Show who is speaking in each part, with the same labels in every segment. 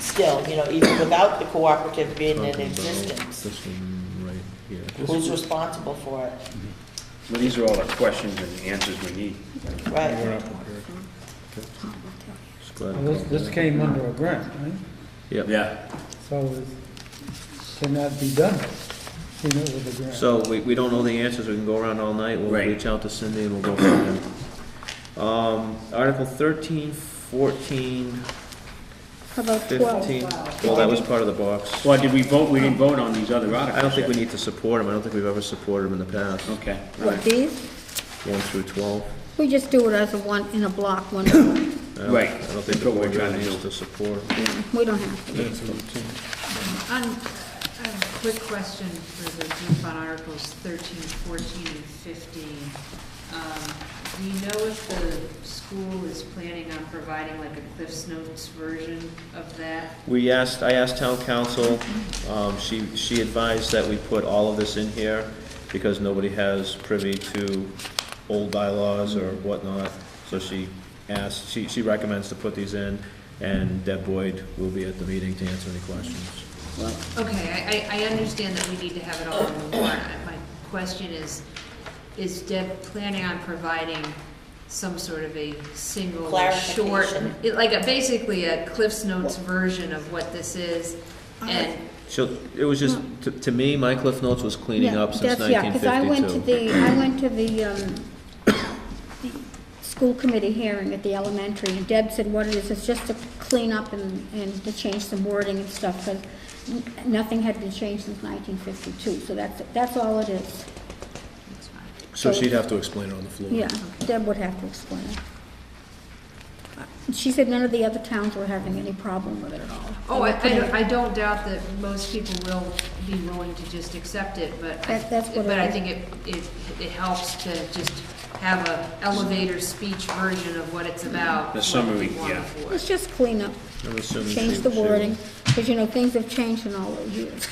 Speaker 1: still, you know, even without the cooperative being in existence,
Speaker 2: This one right here.
Speaker 1: who's responsible for it,
Speaker 3: Well, these are all the questions and answers we need.
Speaker 1: right?
Speaker 2: Just glad
Speaker 4: Well, This,
Speaker 2: I
Speaker 4: this
Speaker 2: called
Speaker 4: came under a grant, right?
Speaker 2: that. Yep.
Speaker 3: Yeah.
Speaker 4: So it cannot be done, you know, with a grant.
Speaker 2: So we, we don't know the answers, we can go around all night, we'll
Speaker 3: Right.
Speaker 2: reach out to Cindy and we'll go from there. Um, Article thirteen, fourteen,
Speaker 5: How about twelve?
Speaker 2: fifteen, well, that was part of the box.
Speaker 3: Well, did we vote, we didn't vote on these other articles?
Speaker 2: I don't think we
Speaker 3: yet.
Speaker 2: need to support them, I don't think we've ever supported them in the past,
Speaker 3: Okay, all
Speaker 5: With
Speaker 3: right.
Speaker 5: these,
Speaker 2: one through twelve.
Speaker 5: we just do it as a one, in a block, one, we
Speaker 2: I don't-
Speaker 3: Right.
Speaker 2: I don't think
Speaker 3: That's
Speaker 2: the
Speaker 3: what we're
Speaker 2: board
Speaker 3: trying
Speaker 2: really
Speaker 3: to
Speaker 2: needs
Speaker 3: do.
Speaker 2: to support.
Speaker 5: don't have to.
Speaker 6: On, Um, a quick question for the group on Articles 13, 14, and 15. Um, Do you know if the school is planning on providing like a Cliff's Notes version of that?
Speaker 2: We asked, I asked town council, um, she, she advised that we put all of this in here because nobody has privy to old bylaws or whatnot. So she asked, she, she recommends to put these in and Deb Boyd will be at the meeting to answer any questions.
Speaker 6: Okay, I, I, I understand that we need to have it all on the warrant. My question is, is Deb planning on providing some sort of a single, short,
Speaker 1: Clarification.
Speaker 6: it- like a, basically a Cliff's Notes version of what this is? And
Speaker 2: So, it was just, to, to me, my Cliff Notes was cleaning
Speaker 5: Yeah,
Speaker 2: up since
Speaker 5: that's- yeah,
Speaker 2: nineteen
Speaker 5: 'cause I went to
Speaker 2: fifty-two.
Speaker 5: the, I went to the, um, the school committee hearing at the elementary, and Deb said what it is, it's just to clean up and, and to change some wording and stuff, because nothing had been changed since nineteen fifty-two, so that's, that's all it is.
Speaker 2: So she'd have to explain it on the floor.
Speaker 5: Yeah, Deb would have to explain it. Uh, She said none of the other towns were having any problem with it at all.
Speaker 6: Oh, I, I don't- I don't doubt that most people will be willing to just accept it, but. I-
Speaker 5: That- that's what
Speaker 6: But I
Speaker 5: I-
Speaker 6: think it, it, it helps to just have a elevator speech version of what it's about.
Speaker 3: The
Speaker 6: what
Speaker 3: summary,
Speaker 6: people want
Speaker 3: yeah.
Speaker 6: for it.
Speaker 5: Let's just clean up,
Speaker 2: I'm assuming
Speaker 5: change
Speaker 2: she-
Speaker 5: the
Speaker 2: she-
Speaker 5: wording, because, you know, things have changed in all those years.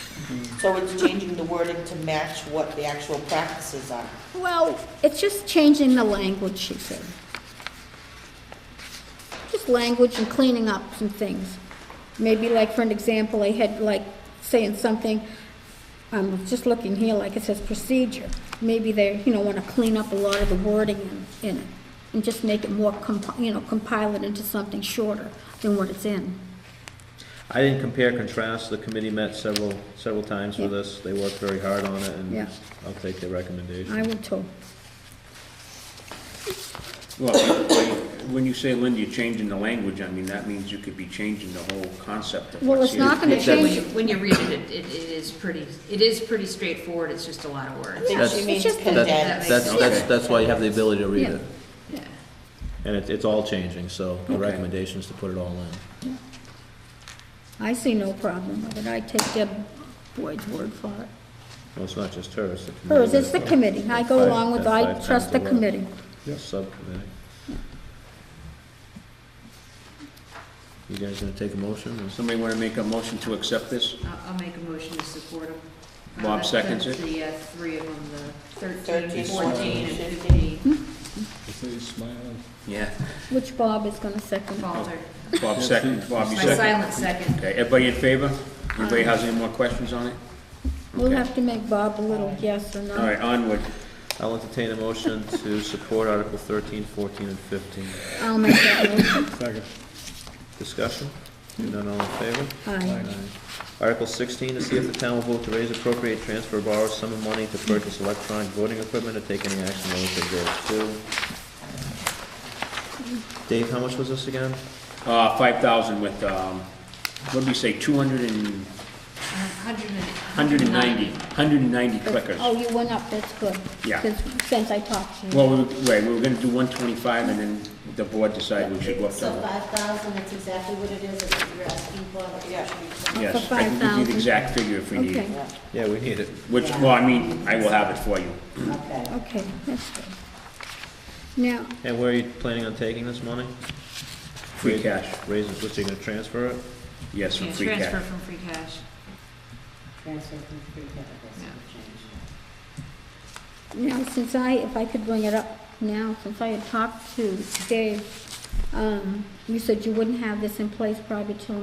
Speaker 1: So it's changing the wording to match what the actual practices are.
Speaker 5: Well, it's just changing the language, she said. Just language and cleaning up some things. Maybe like, for an example, I had like saying something, I'm just looking here, like it says procedure. Maybe they, you know, want to clean up a lot of the wording in, in it and just make it more, compi- you know, compile it into something shorter than what it's in.
Speaker 2: I didn't compare, contrast, the committee met several, several times for
Speaker 5: Yeah.
Speaker 2: this, they worked very hard on it,
Speaker 5: Yeah.
Speaker 2: and I'll take their recommendation.
Speaker 5: I will too.
Speaker 3: Well, when you say, Linda, you're changing the language, I mean, that means you could be changing the whole concept of
Speaker 5: Well, it's
Speaker 3: what's here.
Speaker 5: not gonna
Speaker 6: And then when
Speaker 5: change-
Speaker 6: you- When you read it, it, it it is pretty, it is pretty straightforward, it's just a lot of
Speaker 1: I
Speaker 6: words.
Speaker 1: think
Speaker 2: That's-
Speaker 1: she
Speaker 2: It's
Speaker 1: means
Speaker 5: just the-
Speaker 2: That-
Speaker 1: condensed.
Speaker 2: That's, that's,
Speaker 3: Okay.
Speaker 2: that's why you have the ability to read
Speaker 5: Yeah.
Speaker 2: it.
Speaker 6: Yeah.
Speaker 2: And it's, it's all changing, so the
Speaker 3: Okay.
Speaker 2: recommendation is to put it all in.
Speaker 5: I see no problem with it. I take Deb Boyd's word for it.
Speaker 2: Well, it's not just hers, the committee.
Speaker 5: Hers, it's the committee, I go along with, I
Speaker 2: Five times
Speaker 5: trust the
Speaker 2: the word.
Speaker 5: committee.
Speaker 2: the Subcommittee. You guys gonna take a motion? or-
Speaker 3: Somebody want to make a motion to accept this?
Speaker 6: I'll, I'll make a motion to support them. Uh,
Speaker 3: Bob
Speaker 6: that's
Speaker 3: seconds
Speaker 6: the-
Speaker 3: it.
Speaker 6: The, uh, three of them, the
Speaker 1: 13,
Speaker 6: thirteen, fourteen, and
Speaker 1: 15.
Speaker 5: Hmm.
Speaker 6: fifteen,
Speaker 3: Yeah.
Speaker 5: Which Bob is gonna second.
Speaker 6: falter.
Speaker 3: Bob second, Oh, Bob, you
Speaker 6: My
Speaker 3: second?
Speaker 6: silent second.
Speaker 3: Okay, everybody in favor? Anybody has any more questions on it?
Speaker 5: We'll
Speaker 3: Okay.
Speaker 5: have to make Bob a little yes or
Speaker 3: All
Speaker 5: no.
Speaker 3: right, onward.
Speaker 2: I'll entertain a motion to support Article 13, 14, and fifteen.
Speaker 5: I'll make that motion.
Speaker 2: Discussion? Hearing none, all in favor?
Speaker 5: Aye.
Speaker 2: Article sixteen, to see if the town will vote to raise appropriate transfer or borrow some of money to purchase electronic voting equipment or take any action relative thereto. Dave, how much was this again?
Speaker 3: Uh, five thousand with, um, what did we say, two hundred and,
Speaker 6: A Hundred and.
Speaker 3: hundred and ninety, hundred and ninety clickers.
Speaker 5: Oh, you went up, that's good.
Speaker 3: Yeah.
Speaker 5: Since- Since I talked to you.
Speaker 3: Well, we, were- right, we were gonna do one twenty-five and then the board decided we should go up
Speaker 7: So
Speaker 3: to.
Speaker 7: five thousand, that's exactly what it is, that you're asking for. that you
Speaker 1: Yeah.
Speaker 7: should be-
Speaker 3: Yes, I can give you the
Speaker 5: 5,000.
Speaker 3: exact figure if we need it.
Speaker 5: Okay,
Speaker 2: Yeah, we need it.
Speaker 3: Which, well, I mean, I will have it for you.
Speaker 7: Okay.
Speaker 5: okay, that's good. Now,
Speaker 2: And where are you planning on taking this money?
Speaker 3: Free cash,
Speaker 2: Raise it, what's he gonna transfer it?
Speaker 3: yes, from
Speaker 6: Yeah,
Speaker 3: free cash.
Speaker 6: transfer from free cash.
Speaker 7: Transfer from free capital, that's what changed.
Speaker 5: now, since I, if I could bring it up now, since I had talked to Dave um, you said you wouldn't have this in place probably till